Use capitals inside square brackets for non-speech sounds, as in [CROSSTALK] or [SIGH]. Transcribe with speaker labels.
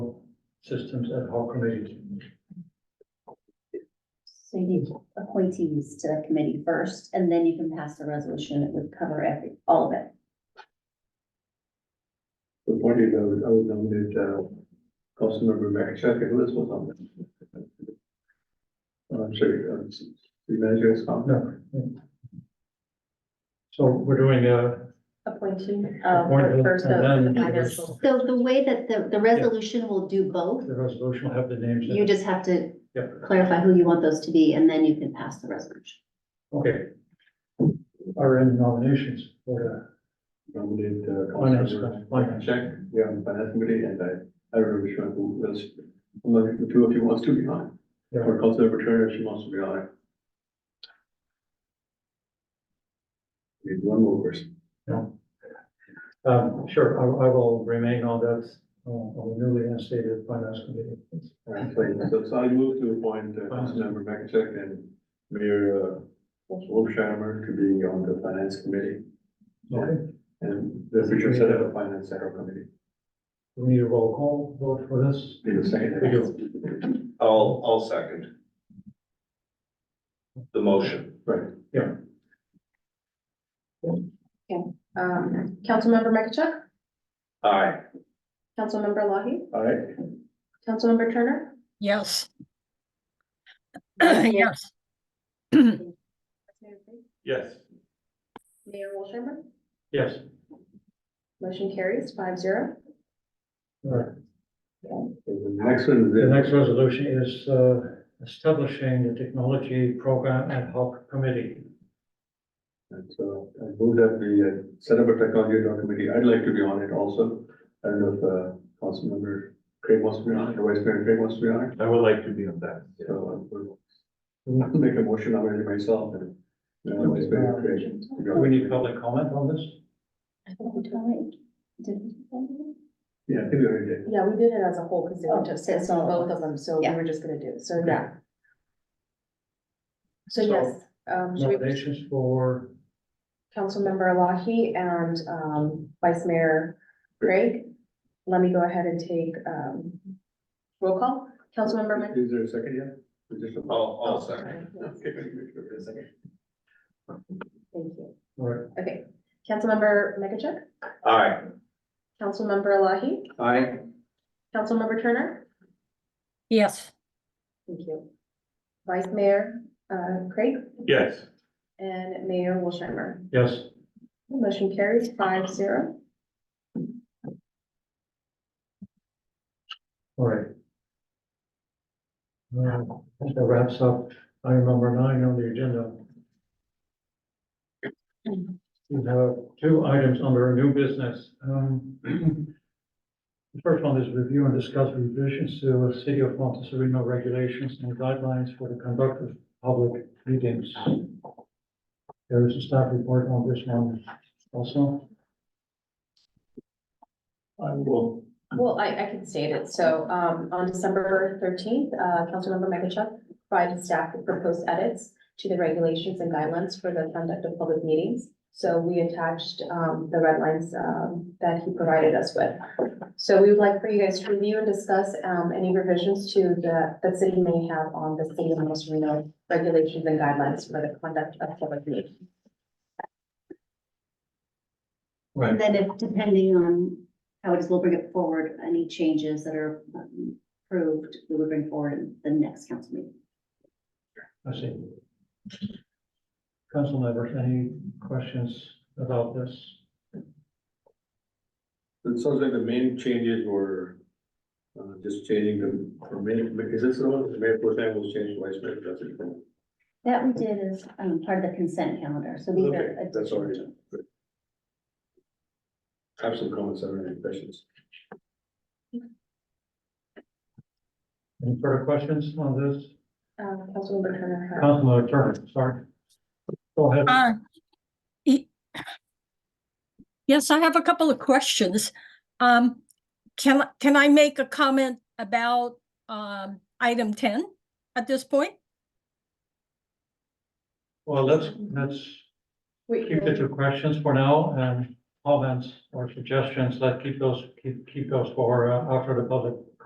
Speaker 1: Systems ad hoc committees.
Speaker 2: So you need appointees to the committee first, and then you can pass a resolution that would cover every, all of it.
Speaker 1: Appointed, I would, I would nominate, uh, Councilmember Mack Chuck if this was on there. I'm sorry, uh, s- the manager is on. No.
Speaker 3: So we're doing uh, a,
Speaker 2: Appointing,
Speaker 3: uh, Appointed, first the- and then- the financial-
Speaker 2: So the way that the, the resolution will do both,
Speaker 3: the resolution will have the names. in
Speaker 2: you
Speaker 3: it.
Speaker 2: just have to
Speaker 3: Yep,
Speaker 2: clarify who you want those to be, and then you can pass the resolution.
Speaker 3: okay. Are any nominations for
Speaker 1: Nominate, uh,
Speaker 3: Finance,
Speaker 1: Councilmember
Speaker 3: finance.
Speaker 1: Mack yeah, on the finance committee, and I, I remember which one who was, one of the two of you wants to be on. it.
Speaker 3: Yeah.
Speaker 1: Or Councilmember Turner, she wants to be on. it. Need one more person.
Speaker 3: that? Um, sure, I, I will remain on that, uh, on the newly instated finance committee.
Speaker 1: All right, so- So, so I move to appoint uh, Councilmember Makachek and Mayor, uh, Wolfsheimer to be on the finance committee.
Speaker 3: Okay,
Speaker 1: And the future set up a finance central committee.
Speaker 3: we need a roll call vote for this.
Speaker 1: Need a second?
Speaker 3: We do.
Speaker 4: I'll, I'll second. The motion.
Speaker 1: Right,
Speaker 5: Um, Councilmember Makachuk,
Speaker 4: Aye.
Speaker 5: Councilmember Lahey,
Speaker 1: all right,
Speaker 5: Councilmember Turner,
Speaker 6: Yes. Yes,
Speaker 4: Yes.
Speaker 5: Mayor Wolshammer.
Speaker 3: Yes,
Speaker 5: Motion carries five zero.
Speaker 3: all right.
Speaker 1: And the next one is
Speaker 3: The
Speaker 1: the
Speaker 3: next resolution is, uh, establishing the technology program ad hoc committee.
Speaker 1: And so I move that we uh, set up a technology ad hoc committee. I'd like to be on it also. I don't know if uh, Councilmember Craig wants to be on it, or Vice Mayor Craig wants to be on it.
Speaker 4: I would like to be on that.
Speaker 1: So I'll make a motion on it myself and uh, Vice Mayor Craig. to be on
Speaker 3: Do we
Speaker 1: it.
Speaker 3: need public comment on this?
Speaker 1: Yeah, I think we already did.
Speaker 5: Yeah, we did it as a whole because they were
Speaker 2: Oh,
Speaker 5: just,
Speaker 2: so
Speaker 5: it's
Speaker 2: it's all
Speaker 5: on
Speaker 2: at
Speaker 5: both
Speaker 2: once.
Speaker 5: of them, so we
Speaker 2: Yeah.
Speaker 5: were just gonna do, it. so yeah. So
Speaker 3: So-
Speaker 5: yes, um, should we,
Speaker 3: Nominations for,
Speaker 5: Councilmember Lahey and, um, Vice Mayor Craig. Let me go ahead and take, um, roll call. Councilmember Min-
Speaker 1: Is there a second yet? Or just a-
Speaker 4: I'll, I'll second.
Speaker 5: Sorry, yes,
Speaker 1: Okay, let me make sure there's a second.
Speaker 5: Thank you.
Speaker 3: all right,
Speaker 5: Okay, Councilmember Makachuk,
Speaker 4: Aye.
Speaker 5: Councilmember Lahey,
Speaker 4: Aye.
Speaker 5: Councilmember Turner.
Speaker 6: yes,
Speaker 5: Thank you. Vice Mayor, uh, Craig
Speaker 4: Yes.
Speaker 5: and Mayor Wolshammer.
Speaker 3: yes.
Speaker 5: Motion carries five zero.
Speaker 3: All right. Uh, That wraps up item number nine on the agenda. We have two items under new business. Um, [CLEARS THROAT] The first one is review and discuss revisions to City of Montezerino regulations and guidelines for the conduct of public meetings. There is a staff report on this one also.
Speaker 1: I will.
Speaker 5: Well, I, I can state it. So, um, on December thirteenth, uh, Councilmember Makachuk provided staff with proposed edits to the regulations and guidelines for the conduct of public meetings. So we attached, um, the red lines, um, that he provided us with. So we would like for you guys to review and discuss, um, any revisions to the, the city may have on the city of Los Reno regulations and guidelines for the conduct of public meetings.
Speaker 3: Right.
Speaker 2: And then if, depending on how it is, we'll bring it forward, any changes that are um, approved, we will bring forward in the next council meeting.
Speaker 3: I see. Council members, any questions about this?
Speaker 1: It sounds like the main changes were uh, just changing the, for many, is this the one, the mayor pro tem was changed to vice mayor, that's it.
Speaker 2: That we did as, um, part of the consent calendar, so these
Speaker 1: Okay,
Speaker 2: are.
Speaker 1: that's
Speaker 2: additional
Speaker 1: already
Speaker 2: changes.
Speaker 1: done. Good. I Have some comments or any questions?
Speaker 3: Any further questions on this?
Speaker 5: Uh, Councilmember Turner. had-
Speaker 3: Councilman Turner, sorry. Go ahead.
Speaker 6: uh. e- Yes, I have a couple of questions. Um, can, I- can I make a comment about, um, item ten at this point?
Speaker 3: Well, let's, let's
Speaker 5: Wait,
Speaker 3: keep the two questions for now and comments or suggestions, let's keep those, keep, keep those for uh, after the public